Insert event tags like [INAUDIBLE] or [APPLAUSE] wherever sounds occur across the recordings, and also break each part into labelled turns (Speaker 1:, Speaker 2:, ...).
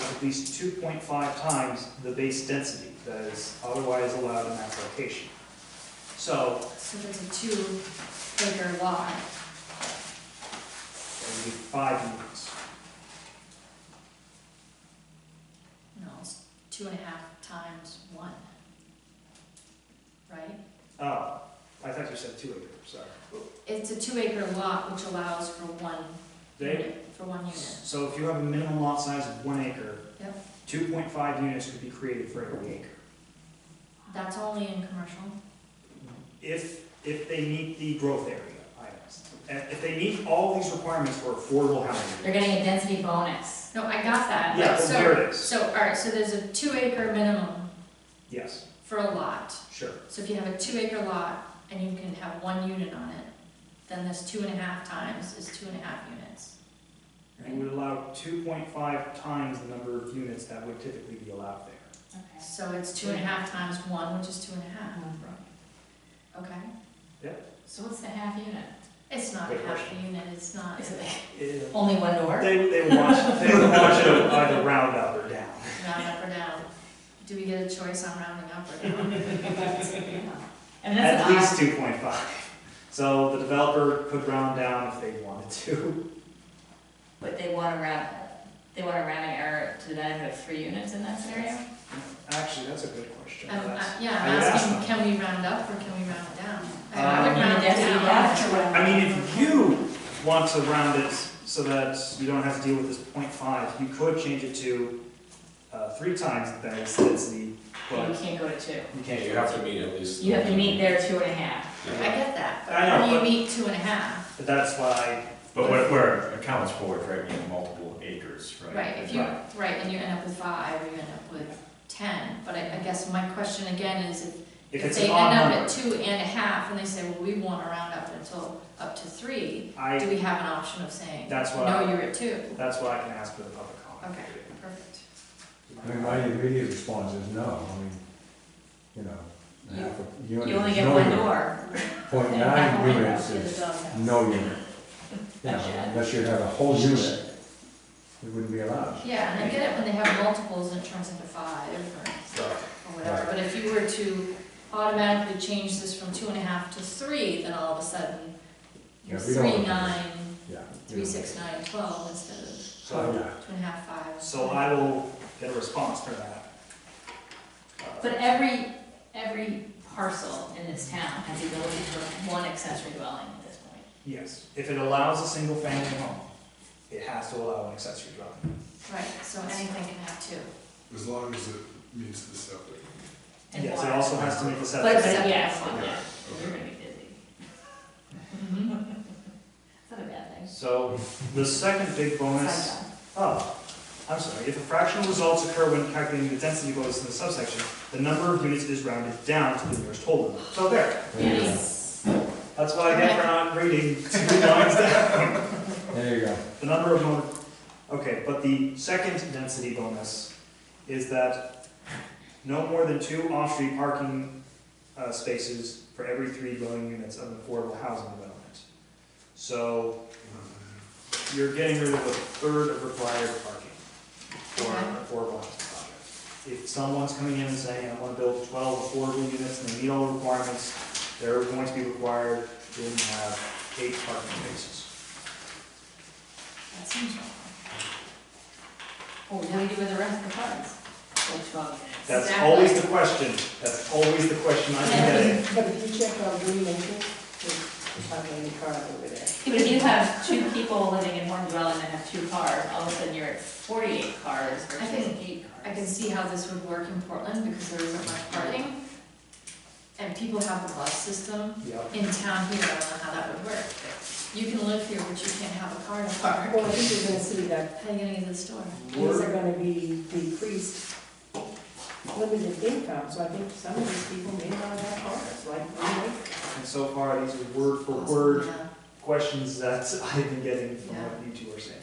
Speaker 1: at least two point five times the base density that is otherwise allowed in that location. So,
Speaker 2: So there's a two acre lot.
Speaker 1: that would be five units.
Speaker 2: No, it's two and a half times one. Right?
Speaker 1: Oh, I thought you said two acre, sorry.
Speaker 2: It's a two acre lot which allows for one
Speaker 1: They,
Speaker 2: unit, for one unit.
Speaker 1: so if you have a minimum lot size of one acre,
Speaker 2: Yep.
Speaker 1: two point five units could be created for every acre.
Speaker 2: That's only in commercial.
Speaker 1: If, if they meet the growth area items. And If they meet all these requirements for affordable housing.
Speaker 3: They're getting a density bonus.
Speaker 2: No, I got that.
Speaker 1: Yeah,
Speaker 2: but
Speaker 1: well,
Speaker 2: so-
Speaker 1: there it is.
Speaker 2: So, all right, so there's a two acre minimum
Speaker 1: Yes,
Speaker 2: for a lot.
Speaker 1: sure.
Speaker 2: So if you have a two acre lot and you can have one unit on it, then this two and a half times is two and a half units.
Speaker 1: You would allow two point five times the number of units that would typically be allowed there.
Speaker 3: Okay.
Speaker 2: So it's two and a half times one, which is two and a half, okay?
Speaker 3: So what's the half unit?
Speaker 2: It's not
Speaker 1: Good
Speaker 2: half a unit, it's not.
Speaker 3: Is it
Speaker 1: It-
Speaker 3: only one [LAUGHS] door?
Speaker 1: They, they watch, they watch it either round up or down.
Speaker 2: round up or down. Do we get a choice on rounding up
Speaker 1: [LAUGHS]
Speaker 2: or down?
Speaker 3: And
Speaker 1: At least
Speaker 3: that's an
Speaker 1: two point five. So the developer could round down if they wanted to.
Speaker 3: odd, but they want a round, they want a rounding error to the benefit of three units in that scenario?
Speaker 1: Actually, that's a good question.
Speaker 2: Um,
Speaker 1: That's-
Speaker 2: I- Yeah,
Speaker 1: I
Speaker 2: I'm
Speaker 1: would ask
Speaker 2: asking,
Speaker 1: them.
Speaker 2: can we round up or can we round it down?
Speaker 1: Uh,
Speaker 2: I would
Speaker 3: You need a
Speaker 2: round
Speaker 3: density bonus to
Speaker 2: down.
Speaker 3: round
Speaker 1: I mean,
Speaker 3: up.
Speaker 1: if you want to round it so that you don't have to deal with this 0.5, you could change it to, uh, three times the base density,
Speaker 3: But You
Speaker 1: but
Speaker 3: can't go to two.
Speaker 1: you
Speaker 4: Yeah,
Speaker 1: can't.
Speaker 4: you have to meet at least.
Speaker 3: You have to meet their two and a half.
Speaker 2: I get that,
Speaker 1: I know,
Speaker 2: but you
Speaker 1: but-
Speaker 2: meet two and a half,
Speaker 1: But that's why,
Speaker 5: But what, where it accounts for, is right, you have multiple acres, right?
Speaker 2: right, if you,
Speaker 1: Right.
Speaker 2: right, and you end up with five, or you end up with ten. But I, I guess my question again is, if-
Speaker 1: if
Speaker 2: if
Speaker 1: it's an
Speaker 2: they
Speaker 1: odd
Speaker 2: end up
Speaker 1: number,
Speaker 2: at two and a half, and they say, well, we want to round up until, up to three, do
Speaker 1: I,
Speaker 2: we have an option of saying,
Speaker 1: That's why-
Speaker 2: no, you're at two?
Speaker 1: that's why I can ask for the public comment.
Speaker 2: Okay, perfect.
Speaker 6: I mean, my immediate response is no, I mean, you know, half a unit.
Speaker 3: You only
Speaker 6: is
Speaker 3: get
Speaker 6: no
Speaker 3: one
Speaker 6: unit.
Speaker 3: door.
Speaker 6: Point
Speaker 3: And half a
Speaker 6: nine
Speaker 3: window
Speaker 6: units
Speaker 3: to the
Speaker 6: is
Speaker 3: doghouse.
Speaker 6: no unit. You know,
Speaker 3: That's it.
Speaker 6: unless you have a whole unit, it wouldn't be allowed.
Speaker 2: Yeah, and I get it when they have multiples and it turns into five or,
Speaker 1: So,
Speaker 2: or whatever, but if you were to automatically change this from two and a half to three, then all of a sudden, you're
Speaker 6: Yeah, we don't want
Speaker 2: three,
Speaker 6: to-
Speaker 2: nine,
Speaker 6: Yeah.
Speaker 2: three, six, nine, twelve instead of
Speaker 6: So,
Speaker 1: So,
Speaker 6: yeah,
Speaker 2: two and a half, five.
Speaker 1: so I will get a response for that. uh,
Speaker 3: But every, every parcel in this town has the ability for one accessory dwelling at this point.
Speaker 1: Yes, if it allows a single family home, it has to allow an accessory dwelling.
Speaker 2: Right, so anything can have two.
Speaker 7: As long as it meets the septic.
Speaker 3: And
Speaker 1: Yes, it
Speaker 3: water.
Speaker 1: also has to meet the
Speaker 3: But,
Speaker 1: setback.
Speaker 3: but,
Speaker 2: Separate.
Speaker 3: yeah, it's one, yeah, we're gonna be busy. [LAUGHS] It's not a bad thing.
Speaker 1: So the second big bonus
Speaker 3: Side
Speaker 1: Oh, I'm sorry, if the fractional results occur when calculating the density bonus in the subsection, the number of units is rounded down to the nearest whole number. So there,
Speaker 3: job.
Speaker 6: there you go,
Speaker 3: Yes.
Speaker 1: that's what I get for not reading [LAUGHS] two lines down.
Speaker 6: there you go.
Speaker 1: The number of, mon- okay, but the second density bonus is that no more than two off-street parking uh, spaces for every three dwelling units of an affordable housing development. So you're getting rid of a third of required parking for an affordable housing project. If someone's coming in and saying, I want to build twelve affordable units and they meet all the requirements, they're going to be required to have eight parking spaces.
Speaker 2: That seems right.
Speaker 3: Well, what do we do with the rest of the funds? Which one?
Speaker 1: That's
Speaker 2: Exactly.
Speaker 1: always the question, that's always the question I'm getting.
Speaker 8: But if you check on Green Acres, there's not any cars over there.
Speaker 3: But if you have two people living in one dwelling and have two cars, all of a sudden you're at forty-eight cars
Speaker 2: I
Speaker 3: versus
Speaker 2: can-
Speaker 3: eight
Speaker 2: I
Speaker 3: cars.
Speaker 2: can see how this would work in Portland because there isn't much parking. And people have the bus system
Speaker 1: Yep.
Speaker 2: in town here, I don't know how that would work. You can live here, but you can't have a car to park.
Speaker 8: Well, this is gonna see that
Speaker 2: How are you gonna get to the store?
Speaker 8: these are gonna be decreased limited income, so I think some of these people may not have cars, like Green Acres.
Speaker 1: And so far, these are word for word
Speaker 2: Yeah,
Speaker 1: questions that I've been getting from what you two are saying.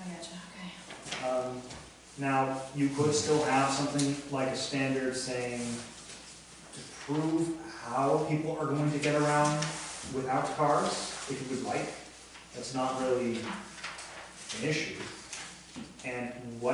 Speaker 2: I gotcha, okay.
Speaker 1: Um, Now, you could still have something like a standard saying to prove how people are going to get around without cars, if you would like. That's not really an issue. and what